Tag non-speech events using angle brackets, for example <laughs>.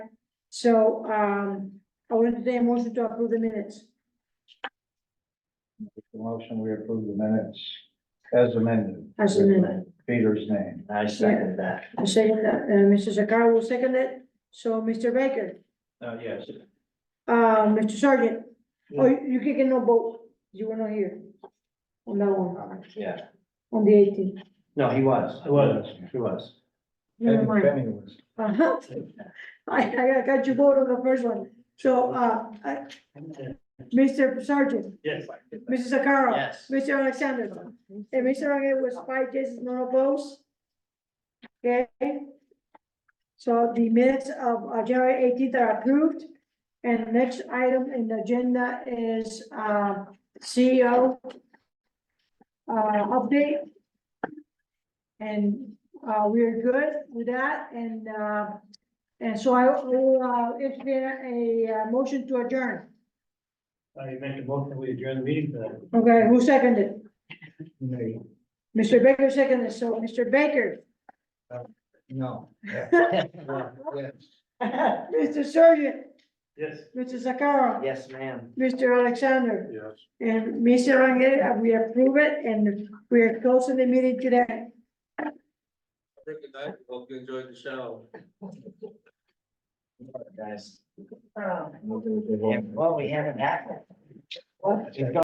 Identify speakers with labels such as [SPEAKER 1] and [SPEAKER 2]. [SPEAKER 1] So, um, I will entertain a motion to approve the minutes.
[SPEAKER 2] The motion, we approve the minutes as amended.
[SPEAKER 1] As amended.
[SPEAKER 2] With Peter's name.
[SPEAKER 3] I second that.
[SPEAKER 1] I second that, uh, Mr. Sakara will second it. So, Mr. Baker,
[SPEAKER 3] Uh, yes.
[SPEAKER 1] uh, Mr. Sergeant, oh, you you can no vote. You were not here. On that one,
[SPEAKER 3] Yeah,
[SPEAKER 1] on the eighteenth.
[SPEAKER 3] no, he was.
[SPEAKER 2] He was.
[SPEAKER 3] He was.
[SPEAKER 1] Never mind.
[SPEAKER 2] Penny was.
[SPEAKER 1] Uh-huh. <laughs> I, I got you voted on the first one. So, uh, I- Mr. Sergeant,
[SPEAKER 3] Yes.
[SPEAKER 1] Mrs. Sakara,
[SPEAKER 3] Yes.
[SPEAKER 1] Mr. Alexander, and Mr. Rangel was five yeses, no opposed. Okay? So the minutes of uh, January eighteenth are approved. And the next item in the agenda is, uh, CEO uh, update. And, uh, we're good with that, and, uh, and so I will, uh, entertain a, uh motion to adjourn.
[SPEAKER 3] I make a motion, we adjourn the meeting for
[SPEAKER 1] Okay, who seconded?
[SPEAKER 2] Nay.
[SPEAKER 1] Mr. Baker seconded, so Mr. Baker,
[SPEAKER 3] <laughs>
[SPEAKER 2] No. Yeah.
[SPEAKER 3] that.
[SPEAKER 2] Yes.
[SPEAKER 1] Mr. Surgeon,
[SPEAKER 3] Yes.
[SPEAKER 1] Mr. Sakara,
[SPEAKER 3] Yes, ma'am.
[SPEAKER 1] Mr. Alexander,
[SPEAKER 2] Yes.
[SPEAKER 1] and Mr. Rangel, we approve it, and we are closing the meeting today.
[SPEAKER 4] Have a good night. Hope you enjoyed the show.
[SPEAKER 3] Guys. Well, we haven't had. that.